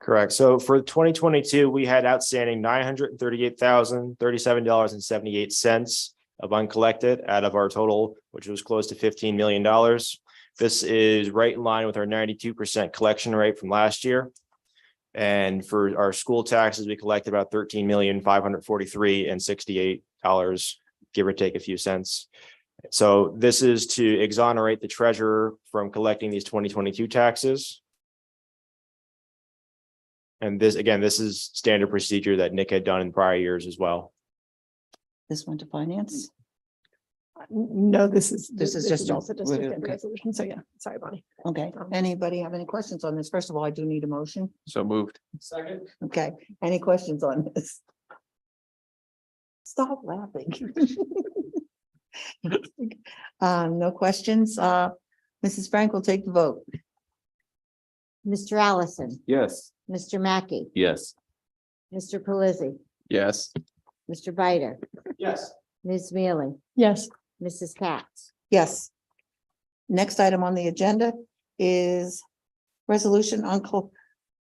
Correct. So for twenty twenty-two, we had outstanding nine hundred and thirty-eight thousand, thirty-seven dollars and seventy-eight cents of uncollected out of our total, which was close to fifteen million dollars. This is right in line with our ninety-two percent collection rate from last year. And for our school taxes, we collected about thirteen million, five hundred forty-three and sixty-eight dollars, give or take a few cents. So this is to exonerate the treasurer from collecting these twenty twenty-two taxes. And this, again, this is standard procedure that Nick had done in prior years as well. This one to finance? No, this is. This is just a- also district okay. and resolution. So yeah, sorry, Bonnie. Okay, Um, anybody have any questions on this? First of all, I do need a motion. So moved. Second. Okay, any questions on this? Stop laughing. Um, no questions. Uh, Mrs. Frank will take the vote. Mr. Allison, Yes. Mr. Mackey, Yes. Mr. Pelisi, Yes. Mr. Bider, Yes. Ms. Mealy, Yes, Mrs. Katz, Yes. Next item on the agenda is resolution on col-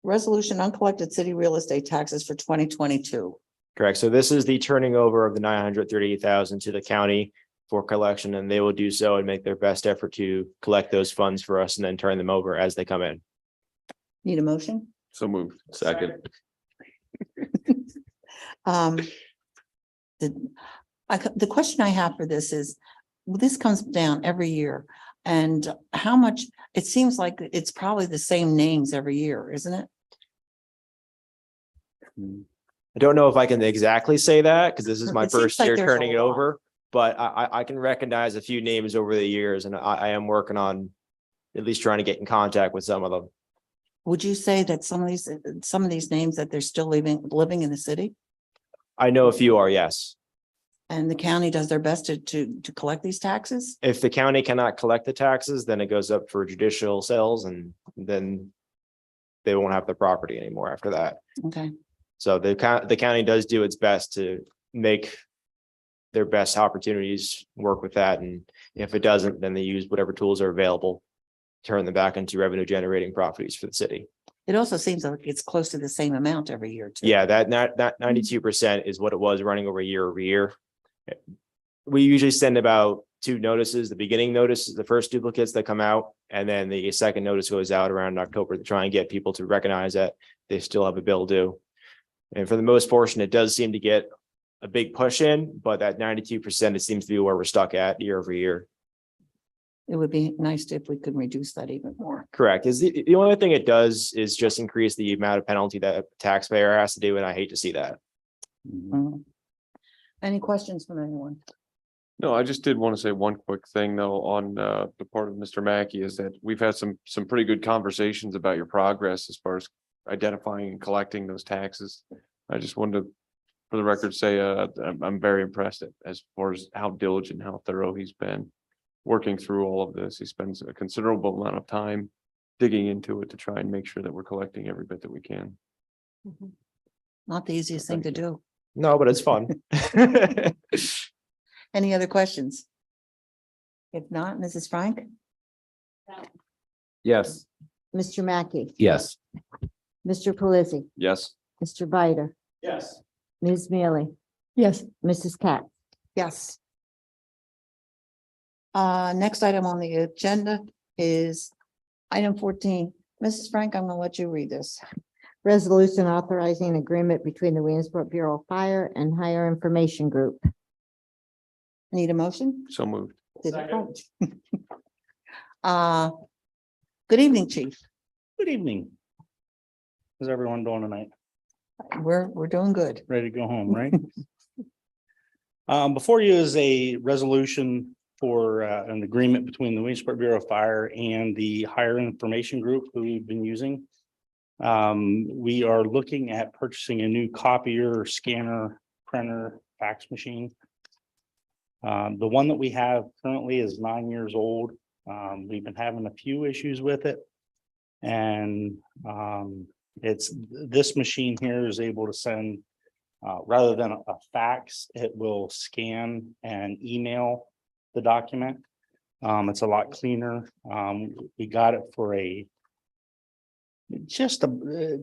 resolution uncollected city real estate taxes for twenty twenty-two. Correct. So this is the turning over of the nine hundred thirty-eight thousand to the county for collection, and they will do so and make their best effort to collect those funds for us and then turn them over as they come in. Need a motion? So moved. Second. Um, the, I, c- the question I have for this is, well, this comes down every year. And how much, it seems like it's probably the same names every year, isn't it? I don't know if I can exactly say that because this is my It seems first like year there's a turning it lot. over, but I, I, I can recognize a few names over the years, and I, I am working on at least trying to get in contact with some of them. Would you say that some of these, some of these names that they're still living, living in the city? I know a few are, yes. And the county does their best to, to, to collect these taxes? If the county cannot collect the taxes, then it goes up for judicial sales and then they won't have the property anymore after that. Okay, So the county, the county does do its best to make their best opportunities, work with that, and if it doesn't, then they use whatever tools are available. Turn them back into revenue generating properties for the city. it also seems like it's close to the same amount every year too. Yeah, that that that ninety-two percent is what it was running over year over year. Eh, We usually send about two notices, the beginning notice, is the first duplicates that come out, and then the second notice goes out around October to try and get people to recognize that they still have a bill due. And for the most portion, it does seem to get a big push in, but that ninety-two percent, it seems to be where we're stuck at year over year. It would be nice if we could reduce that even more. Correct. Is the the only thing it does is just increase the amount of penalty that a taxpayer has to do, and I hate to see that. Mm-hmm. Mm. Any questions from anyone? No, I just did want to say one quick thing though on uh the part of Mr. Mackey is that we've had some some pretty good conversations about your progress as far as identifying and collecting those taxes. I just wanted to, for the record, say uh I'm I'm very impressed as far as how diligent, how thorough he's been working through all of this. He spends a considerable amount of time digging into it to try and make sure that we're collecting every bit that we can. Not the easiest thing to Thank do. No, but it's fun. Any other questions? If not, Mrs. Frank? Yes. Mr. Mackey, Yes. Mr. Pelisi, Yes. Mr. Bider, Yes. Ms. Mealy, yes, Mrs. Katz. Yes. Uh, next item on the agenda is item fourteen. Mrs. Frank, I'm gonna let you read this. Resolution authorizing an agreement between the Williamsport Bureau of Fire and Higher Information Group. Need a motion? So moved. Did- Uh, good evening, chief. Good evening. How's everyone doing tonight? We're, we're doing good. Ready to go home, right? Um, before you is a resolution for uh, an agreement between the Williamsport Bureau of Fire and the Higher Information Group who we've been using. Um, we are looking at purchasing a new copier, scanner, printer, fax machine. Um, the one that we have currently is nine years old. Um, we've been having a few issues with it. And, um, it's, this machine here is able to send uh, rather than a fax, it will scan and email the document. Um, it's a lot cleaner. Um, we got it for a just a, uh,